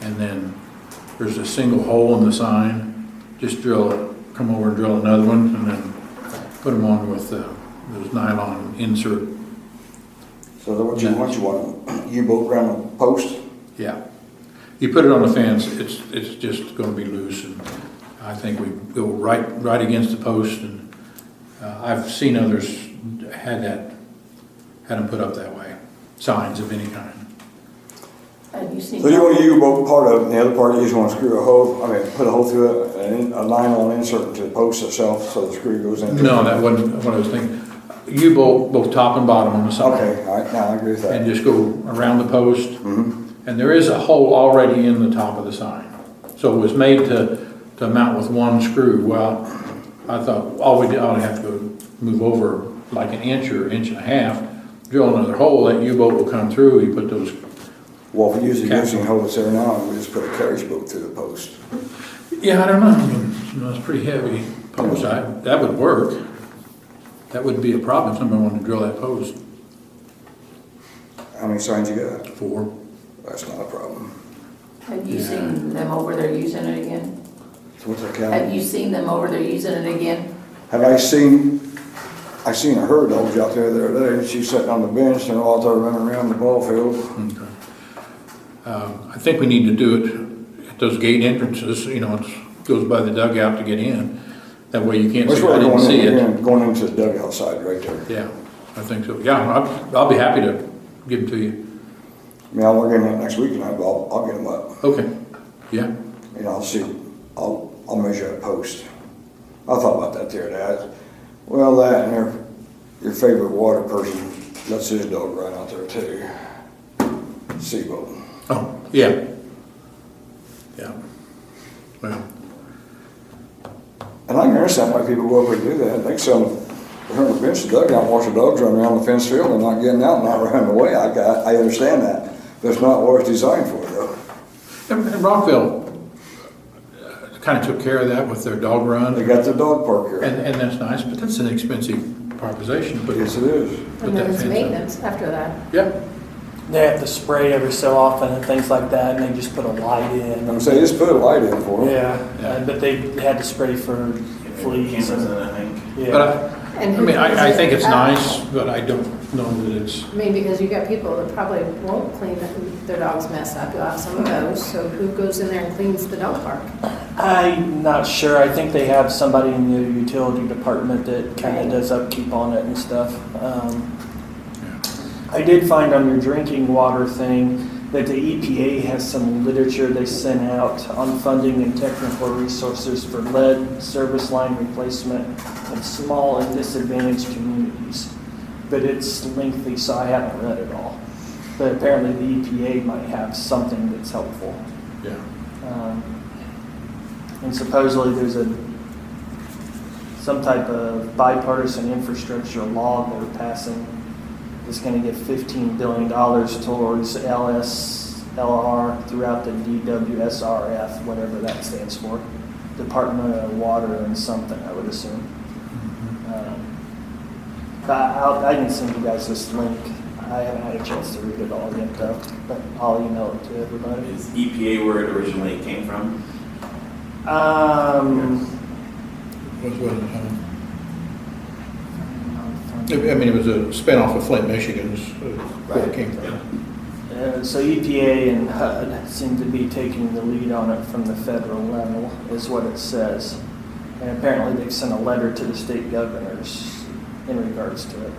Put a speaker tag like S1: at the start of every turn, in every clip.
S1: and then there's a single hole in the sign, just drill it, come over and drill another one, and then put them on with uh, those nylon insert,
S2: So that what you want, you want U-boat around a post?
S1: yeah. You put it on a fence, it's, it's just gonna be loose, and I think we go right, right against the post, and uh, I've seen others had that, had them put up that way, signs of any kind.
S3: Have you seen?
S2: So you want a U-boat part of it, and the other part you just want to screw a hole, I mean, put a hole through it, and a nylon insert into the post itself, so the screw goes in.
S1: No, that wasn't what I was thinking. You bolt both top and bottom on the side.
S2: Okay, all right, now I agree with
S1: And
S2: that.
S1: just go around the post. And there is a hole already in the top of the sign. So it was made to, to mount with one screw. Well, I thought, all we did, I would have to go move over like an inch or inch and a half, drill another hole, that U-boat will come through, you put those,
S2: Well, if we use the
S1: Cap.
S2: existing hole that's there now, we just put a carriage boat through the post.
S1: yeah, I don't know, I mean, you know, it's pretty heavy post. I, that would work. That wouldn't be a problem if somebody wanted to drill that post
S2: How many signs you got?
S1: for.
S2: That's not a problem.
S3: Have you
S1: Yeah.
S3: seen them over there using it again?
S2: So what's our
S3: Have
S2: count?
S3: you seen them over there using it again?
S2: Have I seen, I seen a herd of dogs out there the other day, and she's sitting on the bench, and they're all there running around the ball field.
S1: Okay. Um, I think we need to do it at those gate entrances, you know, it goes by the dugout to get in. That way you can't
S2: That's
S1: say, I
S2: where they're
S1: didn't
S2: going
S1: see
S2: in,
S1: it.
S2: again, going into the dugout side right there.
S1: Yeah, I think so. Yeah, I'll, I'll be happy to give them to you.
S2: I mean, I'll look in that next week, and I'll, I'll get them up.
S1: Okay, yeah.
S2: And I'll see, I'll, I'll measure a post. I thought about that the other day. I- Well, that and your, your favorite water person, that's his dog right out there too. Seaboat.
S1: Oh, yeah. Yeah. Well,
S2: And I can understand why people go over and do that. They sell, they're on the bench, the dugout, watch the dogs run around the fence field and not getting out and not running away. I got, I understand that. That's not what it's designed for though.
S1: and and Rockville kind of took care of that with their dog
S2: They
S1: run.
S2: got the dog park here.
S1: And, and that's nice, but that's an expensive proposition, but.
S2: Yes, it is.
S1: Put
S3: And
S1: that
S3: there
S1: fence
S3: was
S1: up.
S3: maintenance after that.
S1: Yeah,
S4: They have to spray every so often and things like that, and they just put a light in.
S2: I'm saying, just put a light in for them.
S4: Yeah, uh, but they had to spray for fleas. and-
S5: Cameras in, I think.
S1: but
S4: Yeah,
S1: I, I mean, I, I think it's nice, but I don't know that it's,
S3: I mean, because you got people that probably won't clean their dog's mess up. You'll have some of those. So who goes in there and cleans the dog park?
S4: I'm not sure. I think they have somebody in the utility department that kind of does upkeep on it and stuff. Um, I did find on your drinking water thing that the EPA has some literature they sent out on funding and technical resources for lead service line replacement in small and disadvantaged communities. But it's lengthy, so I haven't read it all. But apparently the EPA might have something that's helpful.
S1: yeah.
S4: Um, And supposedly there's a, some type of bipartisan infrastructure law they're passing that's gonna give fifteen billion dollars towards LS, LR throughout the DWSRF, whatever that stands for. Department of Water and something, I would assume. Um, But I'll, I can send you guys this link. I haven't had a chance to read it all yet though, but I'll email it to everybody.
S5: Is EPA where it originally came from?
S4: Um,
S1: Was, was, um, I mean, it was a spinoff of Flint, Michigan's, uh, where it came
S5: Yeah.
S1: from.
S4: uh, so EPA and HUD seem to be taking the lead on it from the federal level, is what it says. And apparently they've sent a letter to the state governors in regards to it.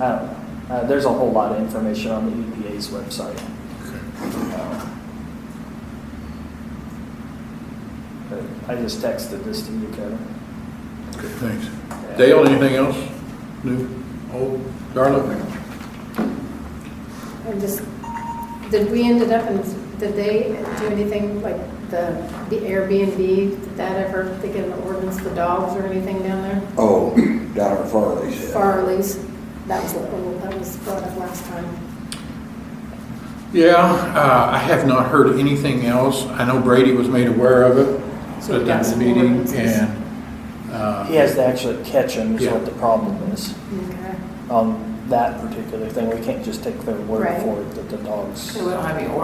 S4: I don't know. Uh, there's a whole lot of information on the EPA's website. Um, but I just texted this to you, Kevin.
S1: Okay, Thanks. Dale, anything else? New, old, Darla?
S3: I just, did we ended up in, did they do anything like the, the Airbnb, did that ever, they get an ordinance for dogs or anything down there?
S2: Oh, down at Farley's. yeah.
S3: Farley's, that was, what- that was brought up last time.
S1: Yeah, uh, I have not heard anything else. I know Brady was made aware of it
S3: So we
S1: at
S3: got
S1: that
S3: some
S1: meeting
S3: ordinances.
S1: and, uh,
S4: He has to actually catch them, is
S1: Yeah.
S4: what the problem is.
S3: Okay.
S4: on that particular thing. We can't just take their word
S3: Right.
S4: for it that the dogs.
S3: don't have any